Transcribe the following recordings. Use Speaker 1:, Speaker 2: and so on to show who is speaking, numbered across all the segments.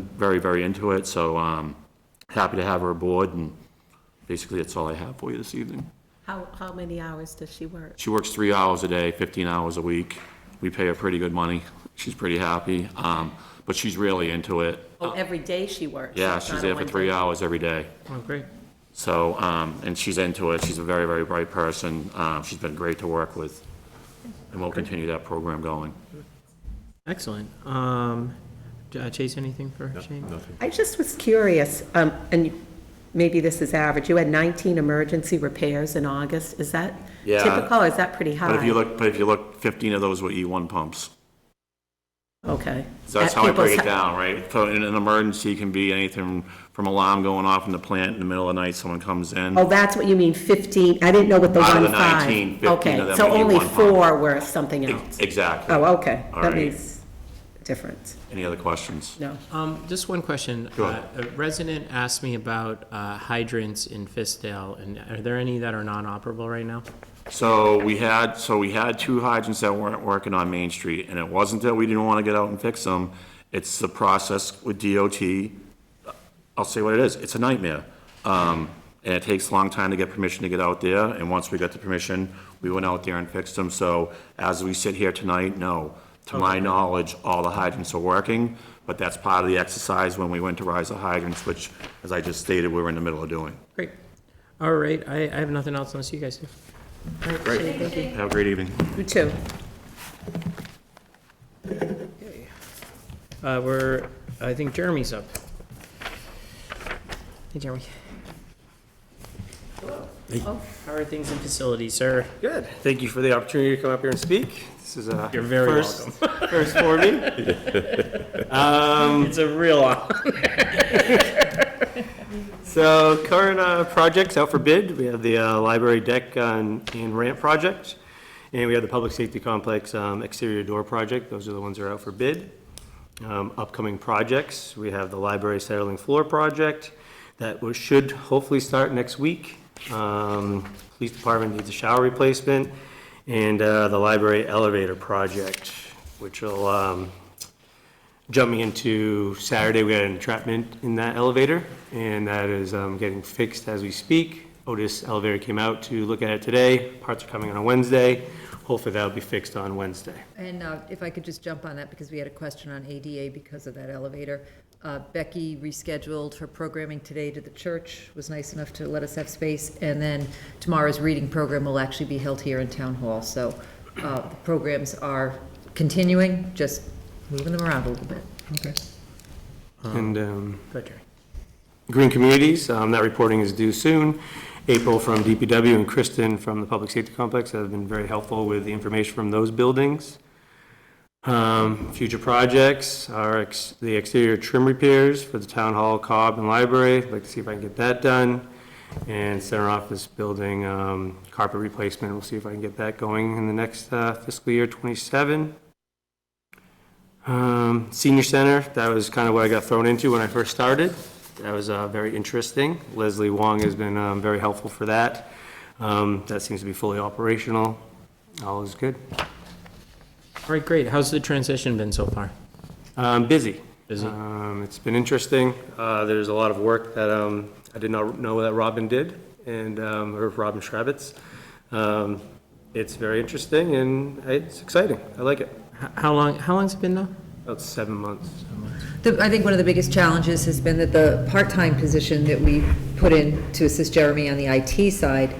Speaker 1: very, very into it, so um, happy to have her aboard, and basically, that's all I have for you this evening.
Speaker 2: How, how many hours does she work?
Speaker 1: She works three hours a day, 15 hours a week. We pay her pretty good money. She's pretty happy, um, but she's really into it.
Speaker 2: Oh, every day she works?
Speaker 1: Yeah,
Speaker 2: It's
Speaker 1: she's
Speaker 2: not a
Speaker 1: there for
Speaker 2: one
Speaker 1: three
Speaker 2: day.
Speaker 1: hours every day.
Speaker 3: Oh, great.
Speaker 1: So, um, and she's into it. She's a very, very bright person. Uh, She's been great to work with, and we'll continue that program going.
Speaker 3: Excellent. Um, J- uh, Chase, anything for Shane?
Speaker 2: I just was curious, um, and you- maybe this is average, you had 19 emergency repairs in August, is that
Speaker 1: Yeah.
Speaker 2: typical, is that pretty high?
Speaker 1: But if you look, but if you look, 15 of those were E1 pumps.
Speaker 2: Okay.
Speaker 1: So that's
Speaker 2: At
Speaker 1: how I break it
Speaker 2: people's-
Speaker 1: down, right? So in an emergency can be anything from alarm going off in the plant in the middle of the night, someone comes in.
Speaker 2: Oh, that's what you mean, 15, I didn't know what the
Speaker 1: Out of the
Speaker 2: one five.
Speaker 1: 19, 15 of them
Speaker 2: Okay, so
Speaker 1: would be
Speaker 2: only
Speaker 1: one pump.
Speaker 2: four were something else.
Speaker 1: Exactly.
Speaker 2: Oh, okay,
Speaker 1: All
Speaker 2: that
Speaker 1: right.
Speaker 2: makes a difference,
Speaker 1: Any other questions?
Speaker 2: no.
Speaker 3: Um, just one question.
Speaker 1: Go ahead.
Speaker 3: Uh, A resident asked me about uh, hydrants in Fiskdale, and are there any that are non-operable right now?
Speaker 1: So we had, so we had two hydrants that weren't working on Main Street, and it wasn't that we didn't want to get out and fix them. It's the process with DOT. I'll say what it is, it's a nightmare. Um, and it takes a long time to get permission to get out there, and once we got the permission, we went out there and fixed them. So as we sit here tonight, no. To my knowledge, all the hydrants are working, but that's part of the exercise when we went to rise the hydrants, which, as I just stated, we were in the middle of doing.
Speaker 3: Great. All right, I, I have nothing else unless you guys do.
Speaker 2: Great.
Speaker 1: Have a great evening.
Speaker 2: You too.
Speaker 3: Uh, we're, I think Jeremy's up. Hey, Jeremy. Hello. Oh, How are things in facilities, sir?
Speaker 4: Good. Thank you for the opportunity to come up here and speak. This is a
Speaker 3: You're very
Speaker 4: first, first for me.
Speaker 3: Um, It's a real.
Speaker 4: So current uh, projects out for bid, we have the uh, library deck on- and ramp project, and we have the public safety complex um, exterior door project. Those are the ones that are out for bid. Um, Upcoming projects, we have the library settling floor project that we should hopefully start next week. Um, Police department needs a shower replacement, and uh, the library elevator project, which will um, jumping into Saturday, we had an entrapment in that elevator, and that is um, getting fixed as we speak. Otis Elevator came out to look at it today. Parts are coming on a Wednesday. Hopefully, that'll be fixed on Wednesday.
Speaker 5: And uh, if I could just jump on that, because we had a question on ADA because of that elevator. Uh, Becky rescheduled her programming today to the church, was nice enough to let us have space. And then tomorrow's reading program will actually be held here in Town Hall. So uh, the programs are continuing, just moving them around a little bit.
Speaker 4: And um,
Speaker 3: Good, Jeremy.
Speaker 4: Green Communities, um, that reporting is due soon. April from DPW and Kristen from the Public Safety Complex have been very helpful with the information from those buildings. Um, Future projects are ex- the exterior trim repairs for the Town Hall, Cobb, and Library. I'd Like to see if I can get that done. And Center Office Building um, carpet replacement, we'll see if I can get that going in the next uh, fiscal year '27. Um, Senior Center, that was kind of what I got thrown into when I first started. That was uh, very interesting. Leslie Wong has been um, very helpful for that. Um, That seems to be fully operational. All is good.
Speaker 3: All right, great. How's the transition been so far?
Speaker 4: Um, Busy.
Speaker 3: Busy.
Speaker 4: Um, It's been interesting. Uh, There's a lot of work that um, I did not know that Robin did, and, um, or Robin Schrabitz. Um, It's very interesting, and it's exciting. I like it.
Speaker 3: H- How long, how long's it been now?
Speaker 4: About seven months.
Speaker 5: The- I think one of the biggest challenges has been that the part-time position that we put in to assist Jeremy on the IT side,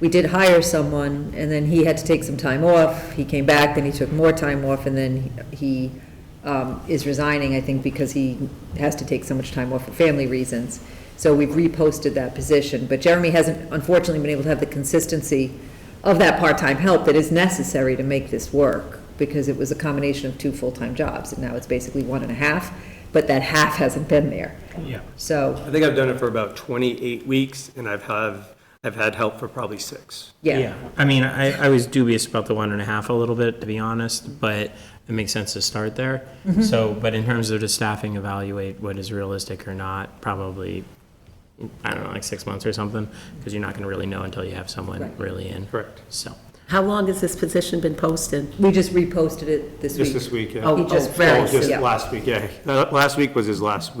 Speaker 5: we did hire someone, and then he had to take some time off. He came back, then he took more time off, and then he um, is resigning, I think, because he has to take so much time off for family reasons. So we've reposted that position. But Jeremy hasn't, unfortunately, been able to have the consistency of that part-time help that is necessary to make this work, because it was a combination of two full-time jobs, and now it's basically one and a half, but that half hasn't been there.
Speaker 4: Yeah.
Speaker 5: So,
Speaker 4: I think I've done it for about 28 weeks, and I've have, I've had help for probably six.
Speaker 5: yeah.
Speaker 3: I mean, I, I was dubious about the one and a half a little bit, to be honest, but it makes sense to start there.
Speaker 5: Mm-hmm.
Speaker 3: So, but in terms of the staffing, evaluate what is realistic or not, probably, I don't know, like six months or something, because you're not going to really know until you have someone
Speaker 5: Right.
Speaker 3: really in.
Speaker 4: Correct.
Speaker 3: So,
Speaker 2: How long has this position been posted?
Speaker 5: We just reposted it this
Speaker 4: Just
Speaker 5: week.
Speaker 4: this week, yeah.
Speaker 2: Oh,
Speaker 5: He just
Speaker 2: oh, very
Speaker 4: Oh, just
Speaker 5: soon.
Speaker 4: Last week, yeah. Uh, Last week was his last